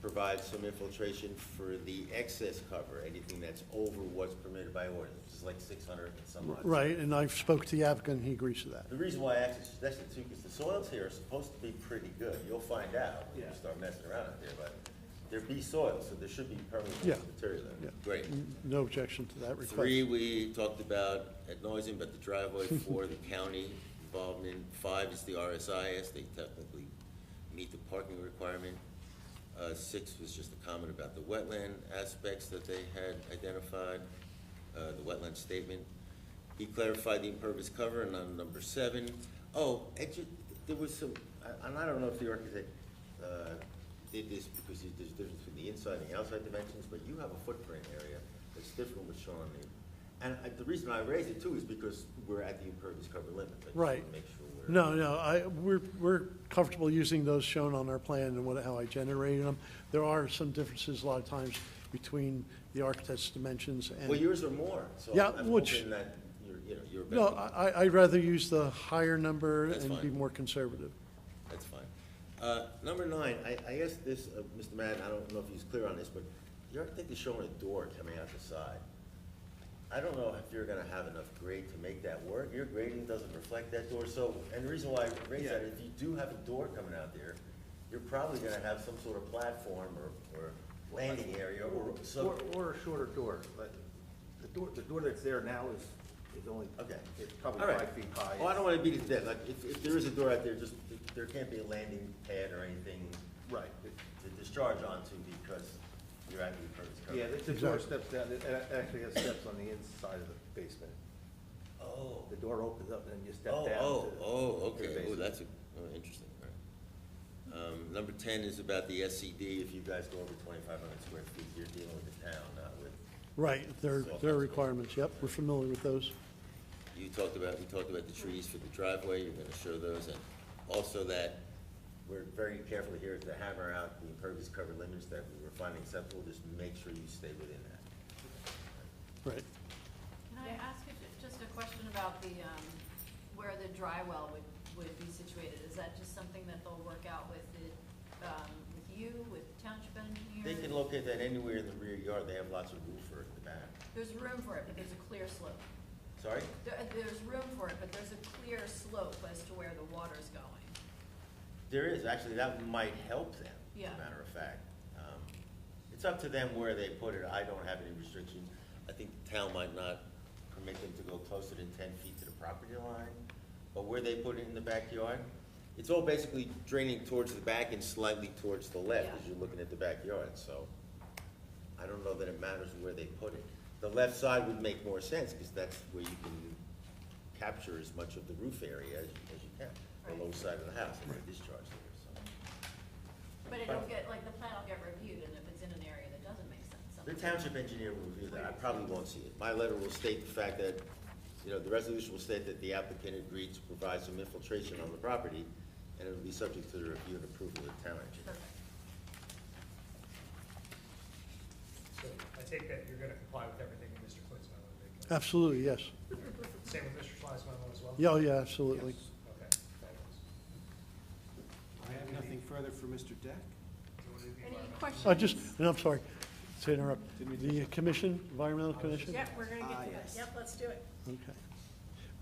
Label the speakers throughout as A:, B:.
A: provide some infiltration for the excess cover, anything that's over what's permitted by ordinance, which is like six hundred and some odd.
B: Right, and I've spoke to the applicant, he agrees to that.
A: The reason why I actually suggested too, because the soils here are supposed to be pretty good. You'll find out when you
B: Yeah.
A: start messing around out there, but they're B soils, so there should be
B: Yeah.
A: permeable material
B: Yeah.
A: there. Great.
B: No objection to that request.
A: Three, we talked about at nauseam, but the driveway, four, the county involvement, five is the RSIS, they technically meet the parking requirement. Uh, six was just a comment about the wetland aspects that they had identified, uh, the wetland statement. He clarified the impervious cover, and on number seven, oh, and ju- there was some, I- and I don't know if the architect, uh, did this because there's a difference between the inside and the outside dimensions, but you have a footprint area that's different with shown on the, and I- the reason I raise it too is because we're at the impervious cover limit. I just wanna
B: Right.
A: Make sure we're.
B: No, no, I, we're, we're comfortable using those shown on our plan and what, how I generated them. There are some differences a lot of times between the architect's dimensions and.
A: Well, yours are more, so
B: Yeah,
A: I'm I'm
B: which-
A: hoping that you're, you know, you're.
B: No,
A: better.
B: I, I- I'd rather use the higher number
A: That's
B: and be
A: fine.
B: more conservative.
A: That's fine. Uh, Number nine, I, I guess this, uh, Mr. Madden, I don't know if he's clear on this, but the architect is showing a door coming out the side. I don't know if you're gonna have enough grade to make that work. Your grading doesn't reflect that door, so, and the reason why I raise that, if you do have a door coming out there, you're probably gonna have some sort of platform or, or landing area or some.
C: Or, or a shorter door, but the door, the door that's there now is, is only,
A: Okay.
C: it's probably
A: All right.
C: five feet high.
A: Well, I don't wanna beat it to death, like, if, if there is a door out there, just, there can't be a landing pad or anything.
C: Right.
A: To discharge onto because you're at the impervious cover.
C: Yeah, the, the door
B: Exactly.
C: steps down, it it actually has steps on the inside of the basement.
A: Oh,
C: The door opens up and then you step
A: oh,
C: down to.
A: oh, oh,
C: to
A: okay,
C: the
A: oh,
C: basement.
A: that's a, oh, interesting, all right. Um, number ten is about the SCD, if you guys go over twenty-five hundred square feet, you're dealing with the town, not with,
B: Right, their,
A: So-
B: their requirements, yep, we're familiar with those.
A: you talked about, we talked about the trees for the driveway, you're gonna show those, and also that we're very careful here to hammer out the impervious cover limits that we were finding acceptable, just make sure you stay within that.
B: Right,
D: Can I ask you ju- just a question about the, um, where the dry well would, would be situated? Is that just something that they'll work out with the, um, with you, with township engineer?
A: They can locate that anywhere in the rear yard, they have lots of roof for the back.
D: There's room for it, but there's a clear slope.
A: Sorry?
D: There, uh, there's room for it, but there's a clear slope as to where the water's going.
A: There is, actually, that might help them, as
D: Yeah.
A: a matter of fact. Um, It's up to them where they put it, I don't have any restrictions. I think the town might not permit them to go closer than ten feet to the property line, but where they put it in the backyard, it's all basically draining towards the back and slightly towards the left as
D: Yeah.
A: you're looking at the backyard, so I don't know that it matters where they put it. The left side would make more sense, because that's where you can capture as much of the roof area as as you can, the low
D: Right.
A: side of the house, and they discharge there, so.
D: But it'll get, like, the plan will get reviewed, and if it's in an area that doesn't make sense,
A: The
D: something.
A: township engineer will review that, I probably won't see it. My letter will state the fact that, you know, the resolution will state that the applicant agreed to provide some infiltration on the property, and it will be subject to the review and approval of the town engineer.
D: Perfect.
E: So I take that you're gonna comply with everything in Mr. Clint's memo, right?
B: absolutely, yes.
E: Same with Mr. Schley's memo as well?
B: Yeah, oh, yeah, absolutely.
E: Okay. fabulous.
F: I have nothing further for Mr. Deck.
E: Do you wanna do
D: Any
E: the environmental?
D: questions?
B: I just, and I'm sorry to interrupt, the commission, environmental commission?
G: Yep, we're gonna
F: Ah,
G: get to
F: yes.
G: that. Yep, let's do it.
B: Okay.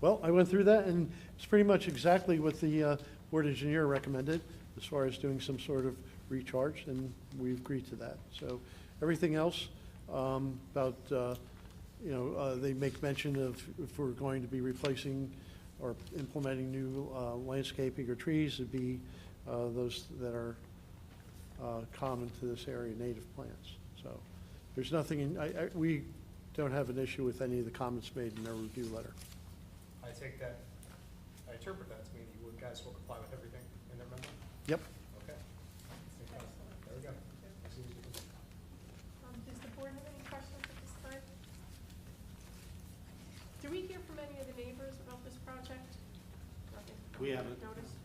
B: Well, I went through that, and it's pretty much exactly what the uh, board engineer recommended as far as doing some sort of recharge, and we agreed to that. So everything else um, about, uh, you know, uh, they make mention of if we're going to be replacing or implementing new uh, landscaping or trees, it'd be uh, those that are uh, common to this area, native plants. So there's nothing, in- I, I, we don't have an issue with any of the comments made in their review letter.
E: I take that, I interpret that to mean you would- guys will comply with everything in their memo?
B: Yep.
E: Okay. There we go. As soon as you can-
G: Um, Does the board have any questions at this time? Do we hear from any of the neighbors about this project? Nothing.
F: We haven't.
G: Notice?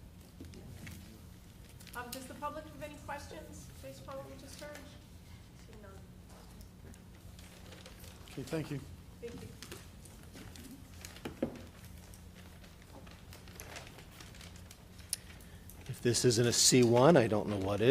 G: Um, does the public have any questions based upon what we just heard? Seeing none.
B: Okay, thank you.
G: Thank you.
H: If this isn't a C1, I don't know what is.